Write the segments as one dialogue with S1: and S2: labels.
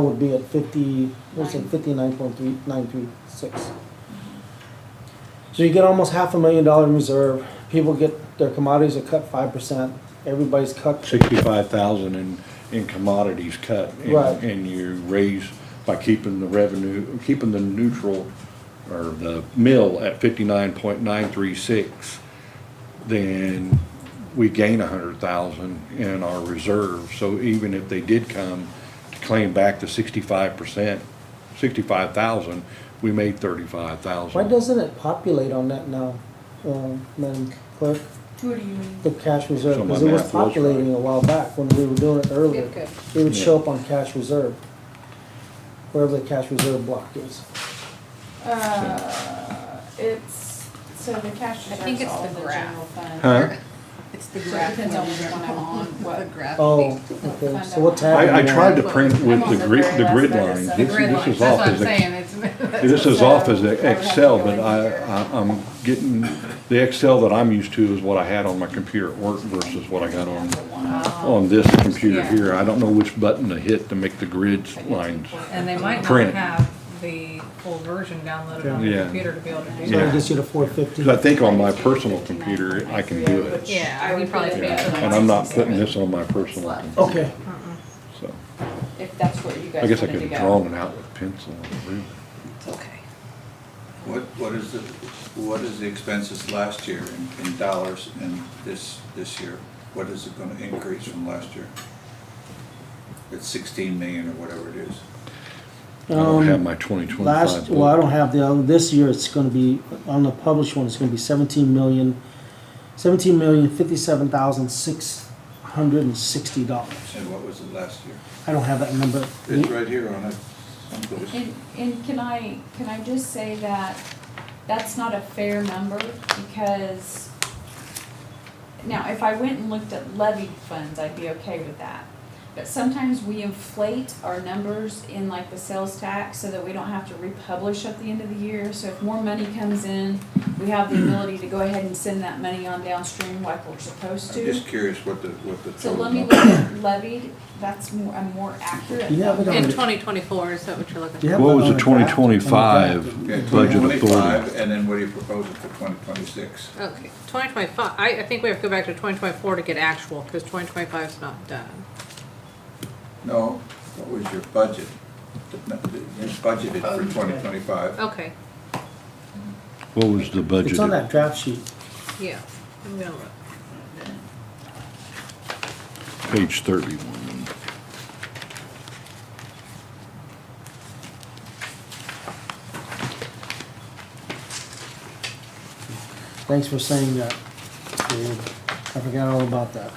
S1: would be at fifty, what's it,
S2: Nine.
S1: fifty-nine point three, nine three six. So you get almost half a million dollar in reserve, people get, their commodities are cut five percent, everybody's cut,
S3: sixty-five thousand in, in commodities cut. and-
S1: Right.
S3: And you raise by keeping the revenue, keeping the neutral, or the mill at fifty-nine point nine three six, then we gain a hundred thousand in our reserve. So even if they did come to claim back the sixty-five percent, sixty-five thousand, we made thirty-five thousand.
S1: why doesn't it populate on that now, um, Madam Clerk?
S2: What do you mean?
S1: The cash reserve,
S3: So my
S1: because it was
S3: math was right.
S1: populating a while back when we were doing it earlier.
S2: Okay.
S1: It would
S3: Yeah.
S1: show up on cash reserve, wherever the cash reserve block is.
S2: Uh, it's, so the cash
S4: I think
S2: reserve's
S4: it's
S2: all
S4: the
S2: the
S4: graph.
S2: general fund.
S3: Huh?
S4: It's the
S2: So it
S4: graph
S2: depends
S4: one,
S2: on which
S4: the
S2: one I'm on, what-
S4: the graph.
S1: Oh,
S4: thing.
S1: okay, so what tab?
S3: I, I
S1: are you on?
S3: tried to print with
S2: I'm
S3: the
S2: on the
S3: grid,
S2: very
S3: the
S2: last
S3: grid
S2: minute,
S3: lines.
S2: so-
S3: This
S4: The grid
S3: this
S4: lines,
S3: is
S4: that's
S3: off
S4: what I'm
S3: as a-
S4: saying, it's. that's
S3: This is
S2: So,
S3: off as
S2: I would
S3: the
S2: have to
S3: Excel,
S2: go
S3: but
S2: in
S3: I, uh,
S2: here.
S3: I- I'm getting, the Excel that I'm used to is what I had on my computer at work versus what I got on, on this computer
S4: Yeah.
S3: here. I don't know which button to hit to make the grid lines.
S4: And they might not
S3: Print.
S4: have the full version downloaded on
S3: Yeah.
S4: the computer to be able to do
S1: So it
S3: Yeah.
S4: that.
S1: gets you to four fifty.
S3: 'Cause I think on my personal computer, I can do it.
S4: Yeah, I would probably be
S3: Yeah,
S4: able to.
S3: And I'm not putting this on my personal, computer,
S1: Okay,
S3: so.
S2: If that's where you guys
S3: I guess I
S2: wanted
S3: could
S2: to
S3: have
S2: go.
S3: drawn it out with pencil. and ruler.
S2: It's okay.
S5: What, what is the, what is the expenses last year in, in dollars and this, this year? What is it gonna increase from last year? It's sixteen million or whatever it is.
S3: I don't
S1: Um,
S3: have my twenty twenty-five.
S1: last, well, I don't have the, other- this year it's gonna be, on the published one, it's gonna be seventeen million, seventeen million fifty-seven thousand six hundred and sixty dollars.
S5: And what was it last year?
S1: I don't have that number.
S5: It's right here on it. someplace.
S2: And, and can I, can I just say that that's not a fair number because now, if I went and looked at levied funds, I'd be okay with that. But sometimes we inflate our numbers in like the sales tax so that we don't have to republish at the end of the year. So if more money comes in, we have the ability to go ahead and send that money on downstream like we're supposed
S5: I'm
S2: to.
S5: just curious what the, what the.
S2: So
S5: total
S2: let me
S5: number-
S2: look at levied, that's more, a more accurate.
S1: Do you have it
S2: number.
S1: on-
S4: In twenty twenty-four, is that what you're looking
S1: Do you
S4: for?
S1: have
S3: What
S1: that
S3: was
S1: on
S3: the
S1: a draft? On the draft?
S3: 2025?
S5: Okay,
S3: Budget authority.
S5: 2025, And then what are you proposing for twenty twenty-six?
S4: Okay, twenty twenty-five, I, I think we have to go back to twenty twenty-four to get actual, because twenty twenty-five's not done.
S5: No, what was your budget? The- the- You budgeted for twenty twenty-five.
S4: Okay,
S3: What was the budget?
S1: It's on that draft sheet.
S4: yeah, I'm gonna look.
S3: Page thirty-one.
S1: Thanks for saying that, Dave. I forgot all about that.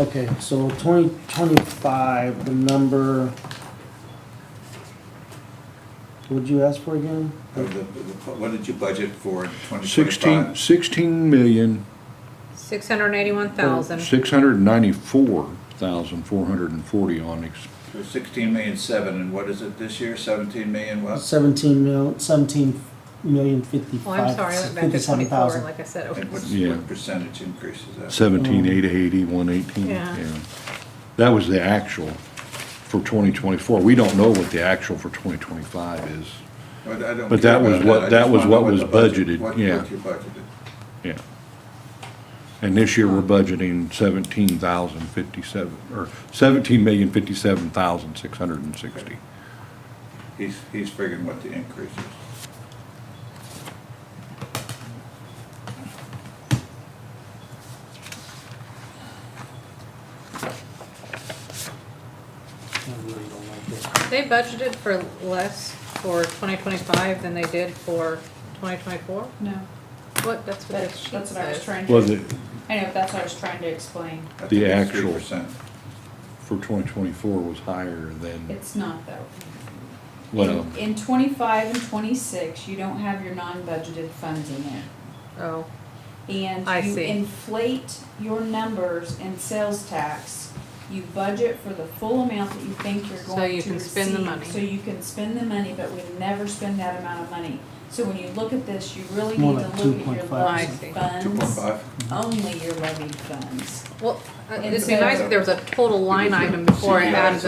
S1: Okay, so twenty twenty-five, the number. What'd you ask for again?
S5: What did you budget for in twenty twenty-five?
S3: Sixteen, sixteen million,
S4: Six hundred and eighty-one thousand.
S3: six hundred and ninety-four thousand, four hundred and forty on ex,
S5: So Uh, sixteen million seven, and what is it this year, seventeen million what?
S1: Seventeen mil, seventeen million fifty-five.
S4: Oh, I'm sorry, I went back to
S1: fifty-seven
S4: twenty-four,
S1: thousand.
S4: like I said. it
S5: And
S4: was-
S5: what's,
S3: Yeah.
S5: what percentage increase is that?
S3: seventeen, eight eighty, one eighteen.
S4: Yeah.
S3: That was the actual for twenty twenty-four. We don't know what the actual for twenty twenty-five is.
S5: But I don't
S3: But
S5: care
S3: that was
S5: about
S3: what-
S5: I
S3: that
S5: just
S3: was
S5: wanna
S3: what
S5: know
S3: was
S5: the budget-
S3: budgeted,
S5: what-
S3: yeah.
S5: What you budgeted.
S3: Yeah. And this year, we're budgeting seventeen thousand fifty-seven, or seventeen million fifty-seven thousand, six hundred and sixty.
S5: He's, he's figuring what the increase is.
S4: They budgeted for less for twenty twenty-five than they did for twenty twenty-four?
S2: No,
S4: What, that's what this
S2: that's,
S4: sheet
S2: that's what I was
S4: says.
S2: trying to.
S3: Was it
S2: I know, that's what I was trying to explain.
S5: I
S3: The
S5: think it's
S3: actual.
S5: 3%.
S3: for twenty twenty-four was higher than,
S2: It's not though.
S3: well,
S2: In in twenty-five and twenty-six, you don't have your non-budgeted funds in there.
S4: Oh, I
S2: And you
S4: see.
S2: inflate your numbers in sales tax. You budget for the full amount that you think you're
S4: So
S2: going
S4: you
S2: to
S4: can
S2: receive.
S4: spend the money.
S2: So you can spend the money, but we never spend that amount of money. So when you look at this, you really
S1: More
S2: need to
S1: like
S2: look at your
S1: 2.5. I
S4: see.
S2: levied
S5: Two point
S2: funds,
S5: five?
S2: only your levied funds.
S4: Well, uh,
S2: And
S4: it'd be
S2: so-
S4: nice if there was a total line item before it
S5: Yeah.
S4: added